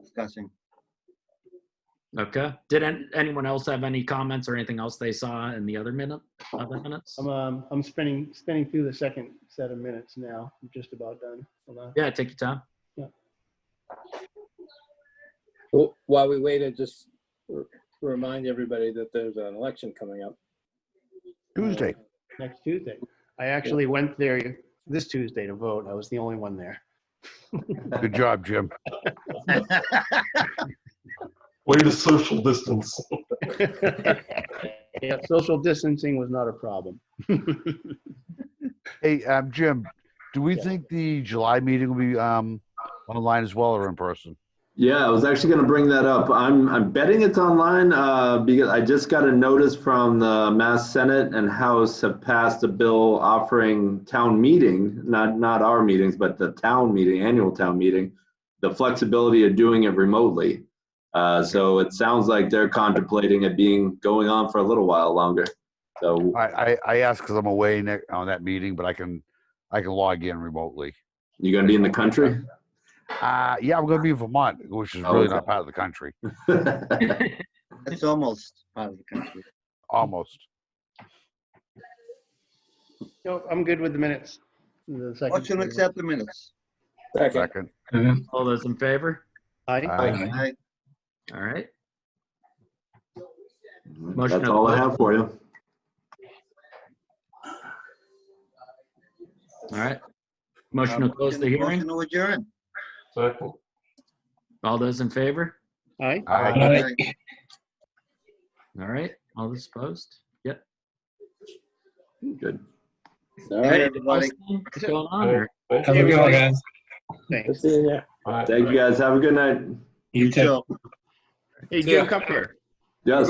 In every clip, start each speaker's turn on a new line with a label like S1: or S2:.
S1: discussing.
S2: Okay. Did an- anyone else have any comments or anything else they saw in the other minute, other minutes?
S3: I'm, um, I'm spinning, spinning through the second set of minutes now. I'm just about done. Hold on.
S2: Yeah, take your time.
S4: Well, While we wait, I just r- remind everybody that there's an election coming up.
S5: Tuesday.
S3: Next Tuesday. I actually went there this Tuesday to vote. I was the only one there.
S5: Good job, Jim.
S6: Way to social distance.
S3: Yeah, social distancing was not a problem.
S5: Hey, um, Jim, do we
S3: Yeah.
S5: think the July meeting will be, um, online as well or in person?
S6: Yeah, I was actually going to bring that up. I'm I'm betting it's online uh, because I just got a notice from the Mass Senate and House have passed a bill offering town meeting, not not our meetings, but the town meeting, annual town meeting, the flexibility of doing it remotely. Uh, so it sounds like they're contemplating it being going on for a little while longer. So
S5: I, I, I ask because I'm away ne- on that meeting, but I can, I can log in remotely.
S6: you going to be in the country?
S5: Uh, yeah, I'm gonna be in Vermont, which is
S6: Oh,
S5: really
S6: okay.
S5: not part of the country,
S1: It's almost part of the country.
S5: almost.
S3: No, I'm good with the minutes. The second-
S1: Motion to accept the minutes.
S4: Second.
S5: Second.
S2: All those in favor?
S3: Aye.
S5: Aye.
S1: Aye.
S2: All right. Motion
S6: That's
S2: to-
S6: all I have for you.
S2: All right. Motion to close the hearing.
S1: Motion to adjourn.
S2: All those in favor?
S3: Aye.
S5: Aye.
S1: Aye.
S2: All right. All those opposed? Yep.
S6: Good.
S4: All
S1: Aye,
S4: right.
S1: everybody.
S2: What's going on? or-
S4: Have a good one, guys.
S3: Thanks.
S4: See you there.
S6: Thank you guys. Have a good night.
S1: You too.
S3: Hey, Jim, come here.
S6: Yes.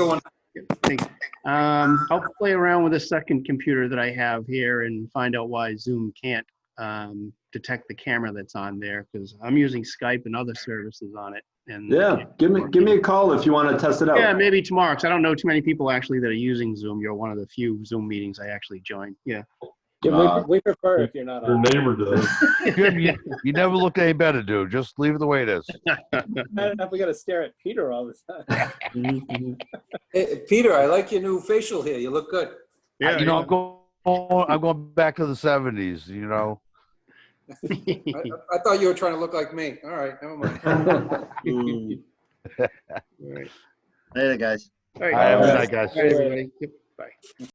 S3: Thanks. Um, I'll play around with a second computer that I have here and find out why Zoom can't um, detect the camera that's on there because I'm using Skype and other services on it. And
S6: Yeah, give me give me a call if you want to test it out.
S3: Yeah, maybe tomorrow, 'cause I don't know too many people actually that are using Zoom. You're one of the few Zoom meetings I actually join. Yeah.
S4: Yeah, we- We prefer if you're not
S6: Uh, Your
S4: on.
S6: neighbor does.
S5: Jim, you, you never looked any better, dude. Just leave it the way it is.
S4: Not enough, we gotta stare at Peter all the time.
S7: Hey, Peter, I like your new facial hair. You look good.
S5: I- you know, I'm going, I'm going back to the seventies, you know?
S7: I, I- I thought you were trying to look like me. All right, never mind.
S4: Mm.
S3: All right.
S1: Later, guys.
S3: All right.
S5: I have a
S4: Aye.
S5: night, guys.
S3: All right, everybody. Yep.